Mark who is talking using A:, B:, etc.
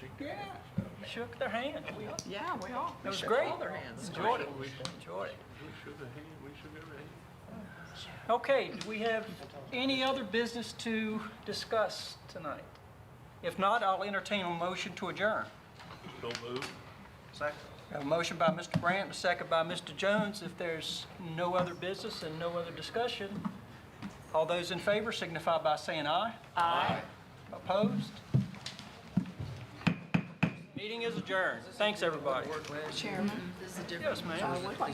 A: Yeah,
B: Shook their hand. We
A: yeah, we all,
B: It
A: we
B: was
A: shook
B: great.
A: all their hands.
B: Enjoyed it. Enjoyed it.
C: We shook a hand, we shook a hand.
B: Okay, do we have any other business to discuss tonight? If not, I'll entertain a motion to adjourn.
C: Don't move.
B: We have A motion by Mr. Brandt, and a second by Mr. Jones. If there's no other business and no other discussion, all those in favor signify by saying aye. Aye. Opposed? Meeting is adjourned. Thanks, everybody.
A: Chairman, this is a different.
B: Yes, ma'am.
A: I would like